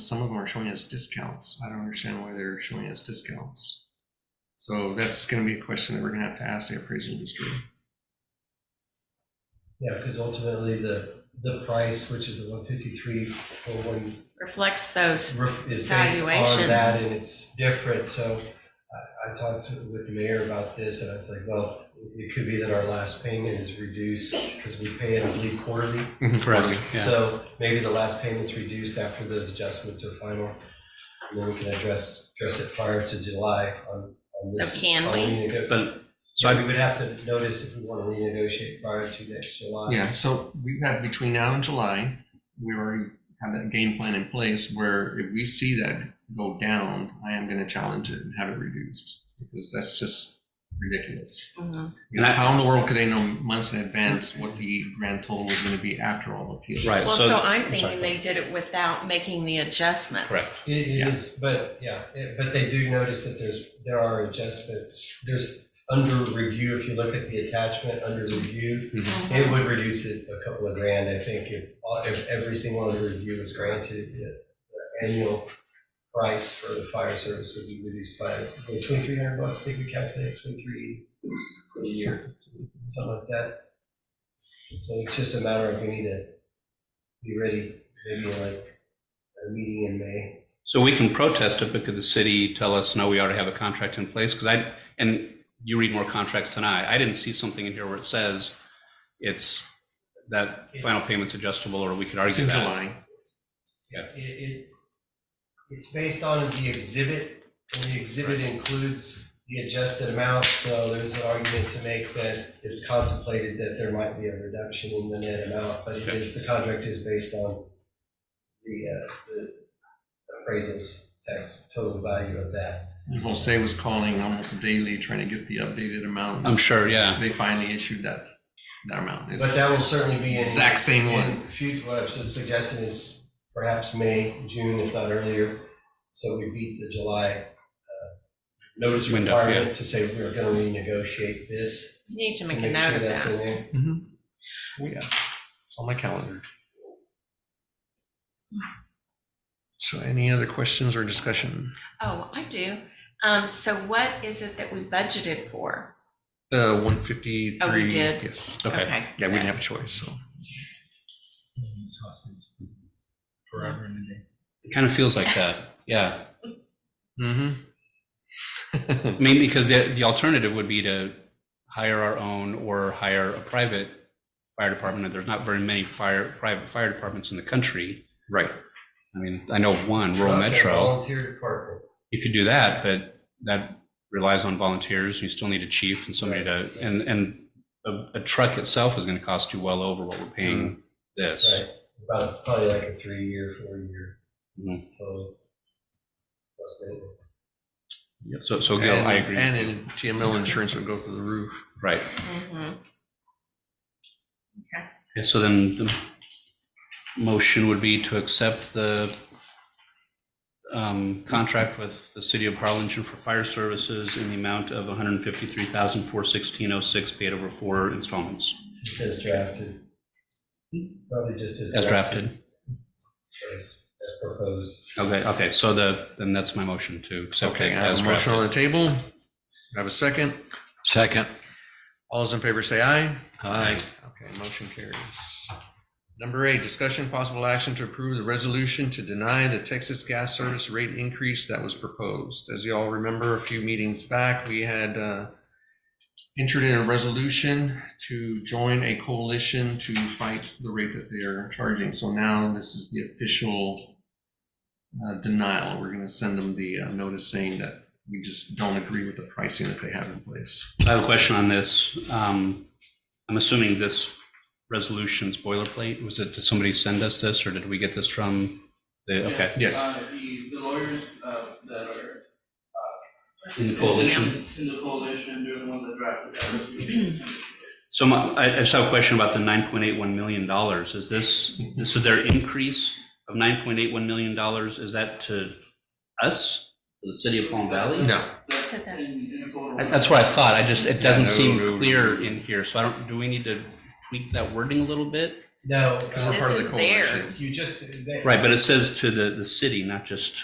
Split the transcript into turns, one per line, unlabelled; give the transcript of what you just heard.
Some of them are showing us discounts. I don't understand why they're showing us discounts. So that's gonna be a question that we're gonna have to ask the appraisal industry.
Yeah, because ultimately the, the price, which is the one fifty-three, or one,
reflects those.
is based on that
Valuations.
and it's different, so I, I talked to- with the mayor about this and I was like, well, it could be that our last payment is reduced because we pay it, I believe, quarterly.
Mm-hmm.
Correctly.
So maybe the last payment's reduced after those adjustments are final. And then we can address, address it prior to July on, on
So
this.
can
on
we?
renego-
But, so
So
I,
we would have to notice if we want to renegotiate prior to next July.
Yeah, so we've had between now and July, we already have that game plan in place where if we see that go down, I am gonna challenge it and have it reduced. Because that's just ridiculous.
Mm-hmm.
Mhm.
And I-
How in the world could they know months in advance what the grand total was gonna be after all appeals?
Right.
Well,
so-
so I'm
sorry,
thinking
go
they did it without making the adjustments.
Correct.
It it
Yeah.
is, but yeah, it- but they do notice that there's, there are adjustments, there's under review, if you look at the attachment, under review,
Mhm.
it would reduce it a couple of grand, I think, if, all- if every single under review was granted, the the annual price for the fire service would be reduced by twenty-three hundred bucks, I think we calculated twenty-three a year, something like that. So it's just a matter of we need to be ready, maybe like a meeting in May.
so we can protest it, but could the city tell us, no, we already have a contract in place? Because I, and you read more contracts than I, I didn't see something in here where it says it's, that final payment's adjustable, or we could
It's
argue
in
that.
July.
It, it, it's based on the exhibit, and the exhibit includes the adjusted amount, so there's an argument to make that it's contemplated that there might be a reduction in the net amount, but it is, the contract is based on the, uh, the appraisals tax, total value of that.
And Jose was calling almost daily trying to get the updated amount.
I'm sure, yeah.
They finally issued that, that amount. It's
But that will certainly be in.
exact same
in
one.
fut- what I'm suggesting is perhaps May, June, if not earlier, so we beat the July uh, notice
Window, yeah.
requirement to say we're gonna renegotiate this.
You need to
to
make a
sure
note of
that's in
that.
there.
Mhm. Oh, yeah. It's on my calendar. So any other questions or discussion?
Oh, I do. Um, so what is it that we budgeted for?
Uh, one fifty-three.
Oh, we did?
Yes.
Okay.
Yeah, we didn't have a choice, so.
Forever
It kind of feels like that, yeah.
Mm-hmm.
I mean, because the, the alternative would be to hire our own or hire a private fire department, and there's not very many fire, private fire departments in the country.
Right.
I mean, I know one, rural
Truck and
metro,
Volunteer department.
you could do that, but that relies on volunteers, you still need a chief and somebody to, and, and a, a truck itself is gonna cost you well over what we're
Mm-hmm.
paying this.
Right, about, probably like a three-year, four-year
Mhm.
total. Plus maintenance.
So, so Gil, I
And,
agree,
and then GML insurance would go through the roof.
right,
Mm-hmm.
Yeah, so then the motion would be to accept the um, contract with the city of Harlingen for fire services in the amount of $153,416.06 paid over four installments
As drafted. Probably just as.
as drafted.
As as proposed.
Okay, okay, so the, then that's my motion to accept it
Okay, I have
as
a motion on
drafted.
the table. I have a second. Second. All those in favor say aye. Aye. Okay, motion carries. Number eight, discussion possible action to approve the resolution to deny the Texas gas service rate increase that was proposed. As you all remember, a few meetings back, we had uh, entered in a resolution to join a coalition to fight the rate that they're charging. So now this is the official uh, denial. We're going to send them the uh, notice saying that we just don't agree with the pricing that they have in place.
I have a question on this. Um, I'm assuming this resolution's boilerplate. Was it, did somebody send us this, or did we get this from the, okay,
Yes.
uh, The the lawyers uh, that are.
in the coalition?
In the coalition, they're the ones that drafted that resolution.
So my, I, I just have a question about the nine point eight one million dollars. Is this, this is their increase of nine point eight one million dollars? Is that to us, to the city of Palm Valley?
No,
That's
To the-
in- in a total-
I- That's what I thought. I just, it doesn't
Yeah, no,
seem
no.
clear in here. So I don't, do we need to tweak that wording a little bit?
No,
we're
uh,
part of the
This is
coalition.
theirs.
you just. they-
Right, but it says to the, the city, not just